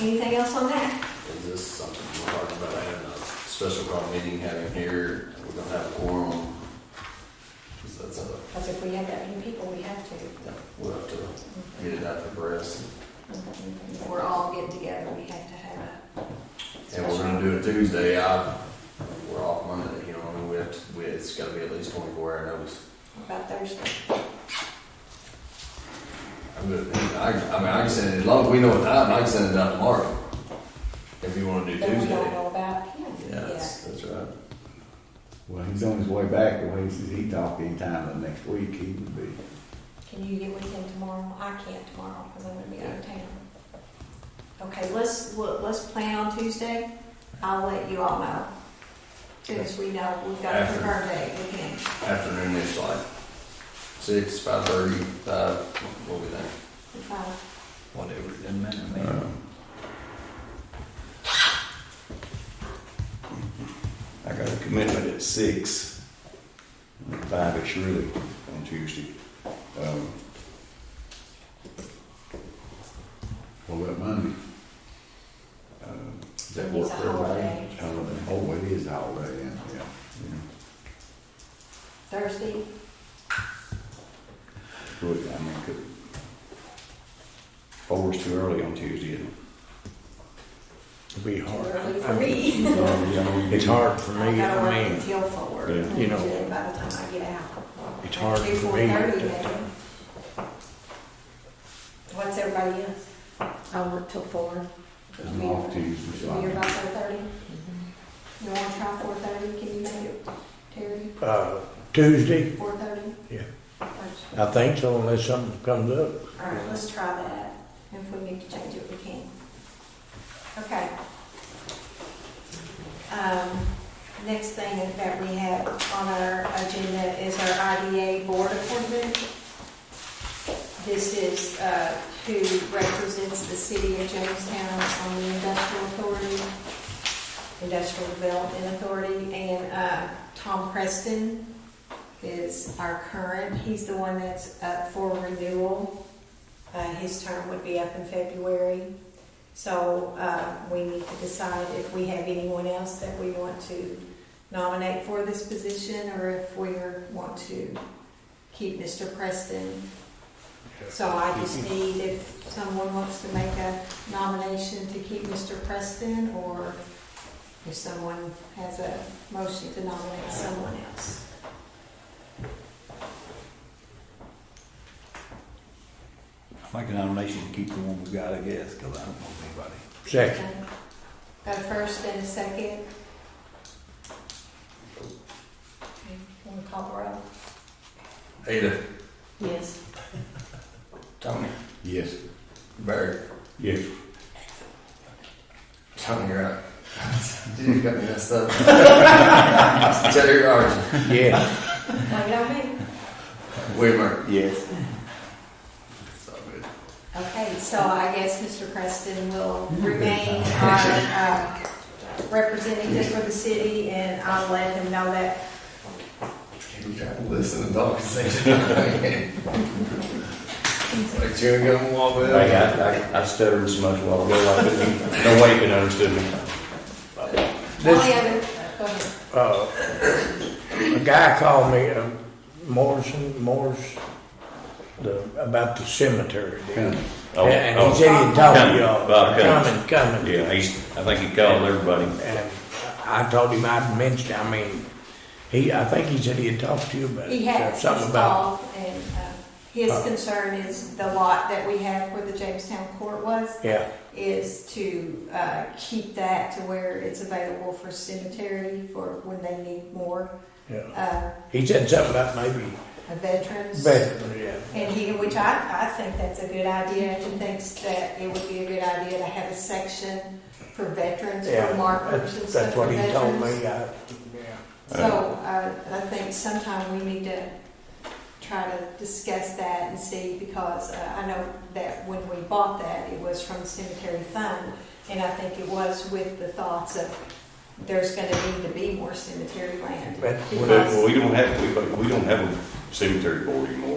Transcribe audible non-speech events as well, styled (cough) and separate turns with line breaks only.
Anything else on that?
Is this something we're talking about having a special call meeting having here, we're gonna have a quorum? Cause that's a,
Because if we have that many people, we have to.
yeah, we'll have to get it out the press.
If We're all getting together, we have to have a.
And we're gonna do it Tuesday, I, we're off Monday, you know, I mean, we have to, we, it's gotta be at least twenty-four hour notice.
What About Thursday.
I'm good, I, I mean, I can send it, as long as we know what time, I can send it out tomorrow. If you wanna do
Then we don't
Tuesday.
know about him.
Yeah, that's, that's right.
Well, he's on his way back, the way he says he talked anytime the next week, he would be.
Can you get with him tomorrow? I can't tomorrow because I'm gonna be out of town. Okay, let's, let- let's plan on Tuesday. I'll let you all know. Soon as we know, we've got a
After.
confirmed date with him.
Afternoon is like six, five thirty, five, we'll be there.
If I-
Whatever, it doesn't matter,
Uh, I got a commitment at six, five at Shirley on Tuesday. Um, What about Monday? Um, Does that work
It's a
for everybody?
holiday.
Holiday. Oh, it is a holiday, yeah, yeah, yeah.
Thursday,
Good, I mean, could. Four's too early on Tuesday, isn't it?
It'd be
Oh,
too
hard.
early for me.
Oh, yeah, I mean,
It's hard for
I
me,
gotta
I
work
mean,
until four.
Yeah.
You know.
Usually By the time I get out.
it's hard
Two,
for
four
me.
thirty,
to-
maybe. What's everybody else?
I work till four.
I'm off Tuesday, so
You're
I'm-
about four thirty?
Mm-hmm.
You wanna try four thirty, can you make it, Terry,
Uh, Tuesday,
four thirty?
Yeah.
All
I think so, unless something comes up.
right, let's try that, if we need to change it, we can. Okay. Um, next thing that we have on our agenda is our IDA board appointment. This is, uh, who represents the city of Jamestown on the industrial authority. Industrial Development Authority, and uh, Tom Preston is our current, he's the one that's up for renewal. Uh, His term would be up in February, so uh, we need to decide if we have anyone else that we want to nominate for this position, or if we want to keep Mr. Preston. So I just need if someone wants to make a nomination to keep Mr. Preston, or if someone has a motion to nominate someone else.
Make a nomination to keep the one we got, I guess, because I don't know anybody.
Second,
Okay. Got a first and a second? Okay, Want to call the roll?
Ada,
Yes.
Tony,
Yes.
Barry,
Yes.
Tony, you're (laughs) out. Dude, you got me messed (laughs) up. Terry Archie,
yes,
Wait, don't be.
Whitmer.
Yes.
It's all good.
Okay, so I guess Mr. Preston will remain our uh, representative for the city, and I'll let him know that.
You gotta Listen to dog say (laughs) that. Like chewing gum a little bit.
Hey, I, I, I stuttered so much while ago, I couldn't, no way you could understand me.
Only other, go ahead.
uh, a guy called me, uh, Morrison, Morris, the, about the cemetery deal.
Cummings.
Oh,
And
oh,
he said he'd talk to
Cummings.
y'all,
Bob Cummings.
coming, coming.
Yeah, he's, I think he called everybody.
And I told him I'd mentioned, I mean, he, I think he said he'd talk to you about it.
He had
Something about,
installed, and uh, his concern is the lot that we have where the Jamestown court was,
yeah,
is to uh, keep that to where it's available for cemetery for when they need more
yeah.
uh,
He said something about maybe
veterans.
veterans, yeah.
And he, which I, I think that's a good idea, and thinks that it would be a good idea to have a section for veterans,
Yeah,
for markers and
that's,
stuff
that's
for
what he told
veterans.
me, I,
So, uh, I think sometime we need to try to discuss that and see, because uh, I know that when we bought that, it was from the cemetery fund, and I think it was with the thoughts of there's gonna need to be more cemetery land.
but
But, well, we don't have, we, we don't have a cemetery board anymore.